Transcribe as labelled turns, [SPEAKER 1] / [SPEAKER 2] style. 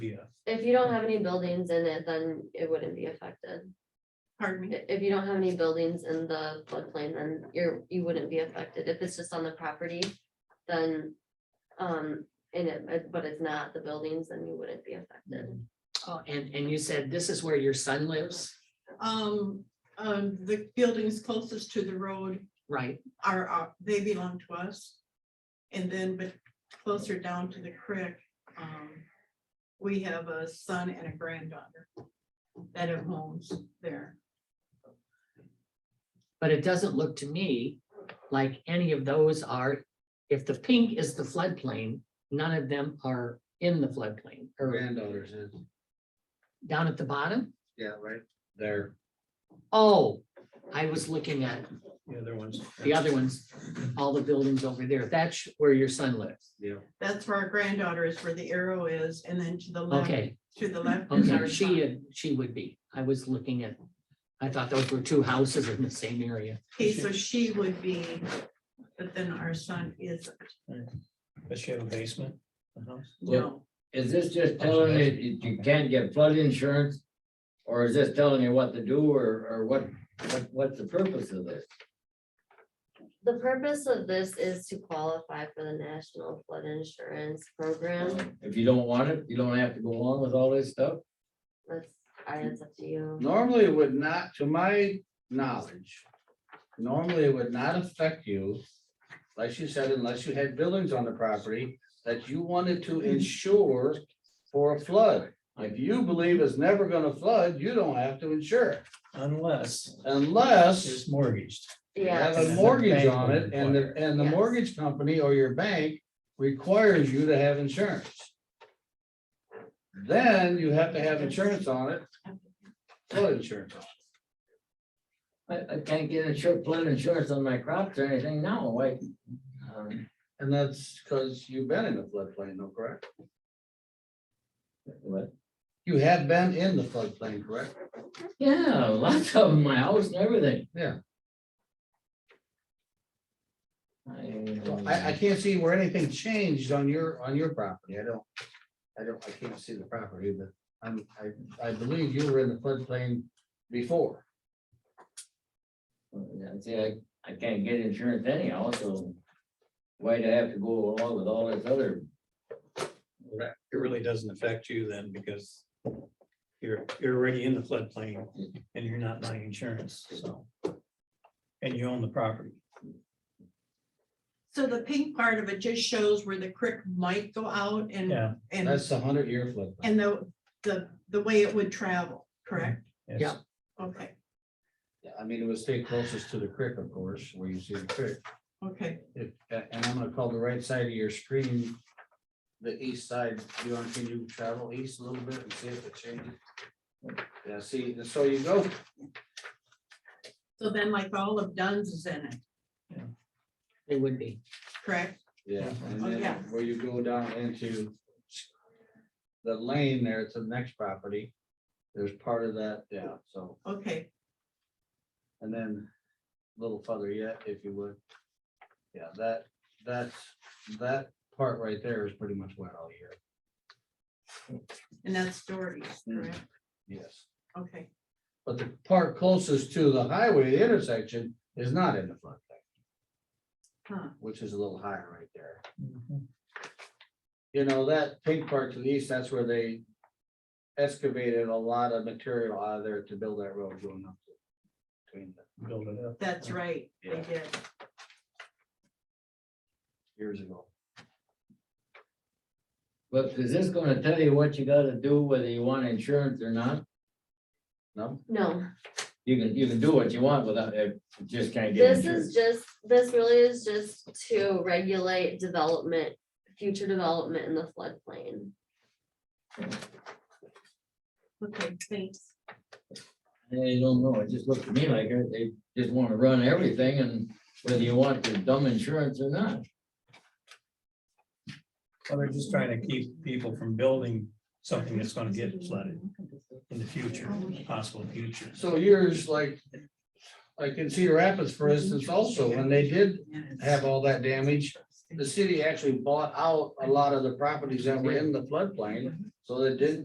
[SPEAKER 1] Yeah.
[SPEAKER 2] If you don't have any buildings in it, then it wouldn't be affected.
[SPEAKER 3] Pardon me?
[SPEAKER 2] I- If you don't have any buildings in the floodplain, then you're, you wouldn't be affected. If it's just on the property, then. Um, in it, but- but it's not the buildings, then you wouldn't be affected.
[SPEAKER 4] Oh, and, and you said this is where your son lives,
[SPEAKER 3] Um, um, the buildings closest to the road
[SPEAKER 4] right?
[SPEAKER 3] are, are- they belong to us. And then, but closer down to the creek, um, we have a son and a granddaughter that have homes there.
[SPEAKER 4] But it doesn't look to me like any of those are, if the pink is the floodplain, none of them are in the floodplain or
[SPEAKER 5] Granddaughters is,
[SPEAKER 4] down at the bottom.
[SPEAKER 5] yeah, right there.
[SPEAKER 4] Oh, I was looking at
[SPEAKER 1] The other ones.
[SPEAKER 4] the other ones, all the buildings over there. That's where your son lives.
[SPEAKER 5] Yeah.
[SPEAKER 3] That's where our granddaughter is, where the arrow is, and then to the left,
[SPEAKER 4] Okay,
[SPEAKER 3] to the left is
[SPEAKER 4] okay,
[SPEAKER 3] our
[SPEAKER 4] she,
[SPEAKER 3] son.
[SPEAKER 4] uh, she would be. I was looking at, I thought those were two houses in the same area.
[SPEAKER 3] Okay, so she would be, but then our son is,
[SPEAKER 1] Does she have a basement? uh-huh. The house?
[SPEAKER 3] no,
[SPEAKER 6] Is this just telling you that you can't get flood insurance? Or is this telling you what to do or, or what, what, what's the purpose of this?
[SPEAKER 2] The purpose of this is to qualify for the National Flood Insurance Program.
[SPEAKER 6] Um, If you don't want it, you don't have to go along with all this stuff?
[SPEAKER 2] That's, I, it's up to you.
[SPEAKER 5] Normally it would not, to my knowledge, normally it would not affect you. Like you said, unless you had buildings on the property that you wanted to insure for a flood. If you believe it's never gonna flood, you don't have to insure it
[SPEAKER 1] Unless
[SPEAKER 5] unless
[SPEAKER 1] it's mortgaged.
[SPEAKER 5] you have
[SPEAKER 2] Yeah,
[SPEAKER 5] a
[SPEAKER 1] Yes.
[SPEAKER 5] mortgage on it and the,
[SPEAKER 1] Bank
[SPEAKER 5] and the
[SPEAKER 2] Yes.
[SPEAKER 5] mortgage company or your bank requires you to have insurance. Then you have to have insurance on it, flood insurance. on it.
[SPEAKER 6] I, I can't get insurance, flood insurance on my crops or anything now, why? um,
[SPEAKER 5] And that's because you've been in the floodplain, no, correct?
[SPEAKER 6] What?
[SPEAKER 5] You have been in the floodplain, correct?
[SPEAKER 6] Yeah, lots of them, my house and everything.
[SPEAKER 5] Yeah. So I, I
[SPEAKER 6] I,
[SPEAKER 5] can't see where anything changed on your, on your property. I don't, I don't, I can't see the property, but I'm, I, I believe you were in the floodplain before.
[SPEAKER 6] I, uh, see, I, I can't get insurance anyhow, so why'd I have to go along with all this other
[SPEAKER 1] It really doesn't affect you then because you're, you're already in the floodplain and you're not buying insurance, so. And you own the property.
[SPEAKER 3] so the pink part of it just shows where the creek might go out
[SPEAKER 4] Mm.
[SPEAKER 3] and,
[SPEAKER 1] Yeah.
[SPEAKER 3] and.
[SPEAKER 5] That's the hundred year floodplain.
[SPEAKER 3] And the, the, the way it would travel, correct?
[SPEAKER 1] Yes.
[SPEAKER 4] Yeah.
[SPEAKER 3] Okay,
[SPEAKER 5] Yeah, I mean, it would stay closest to the creek, of course, where you see the creek.
[SPEAKER 3] okay,
[SPEAKER 5] If- a- And I'm gonna call the right side of your screen, the east side. You want, can you travel east a little bit and see if it changes? Yeah, see, so you go,
[SPEAKER 3] so then like all of Dunn's is in it,
[SPEAKER 4] They would be.
[SPEAKER 3] correct?
[SPEAKER 5] yeah, and
[SPEAKER 3] Yeah.
[SPEAKER 5] then where you go down into the lane there, it's the next property. There's part of that, yeah, so,
[SPEAKER 3] Okay,
[SPEAKER 5] and then a little further yet, if you would. Yeah, that, that's, that part right there is pretty much wet all year,
[SPEAKER 3] and that's Doherty's, correct?
[SPEAKER 5] yes.
[SPEAKER 3] Okay,
[SPEAKER 5] But the part closest to the highway the intersection is not in the floodplain,
[SPEAKER 3] huh,
[SPEAKER 5] which is a little higher right there.
[SPEAKER 1] Mhm.
[SPEAKER 5] You know, that pink part to the east, that's where they excavated a lot of material out of there to build that road going up. to- Between the
[SPEAKER 1] Build it up.
[SPEAKER 3] that's right, they
[SPEAKER 5] Yeah.
[SPEAKER 3] did.
[SPEAKER 5] years ago.
[SPEAKER 6] But is this gonna tell you what you gotta do, whether you want insurance or not?
[SPEAKER 5] No,
[SPEAKER 2] no.
[SPEAKER 6] You can, you can do what you want without, it you just can't get
[SPEAKER 2] This is
[SPEAKER 6] insurance.
[SPEAKER 2] just, this really is just to regulate development, future development in the floodplain.
[SPEAKER 3] Okay, thanks.
[SPEAKER 6] I don't know, it just looked to me like they just wanna run everything and whether you want the dumb insurance or not.
[SPEAKER 1] Well, they're just trying to keep people from building something that's gonna get flooded in the future, possible future.
[SPEAKER 5] so years like, like in Cedar Rapids, for instance, also, when they did have all that damage, the city actually bought out a lot of the properties that were in the floodplain. So that didn't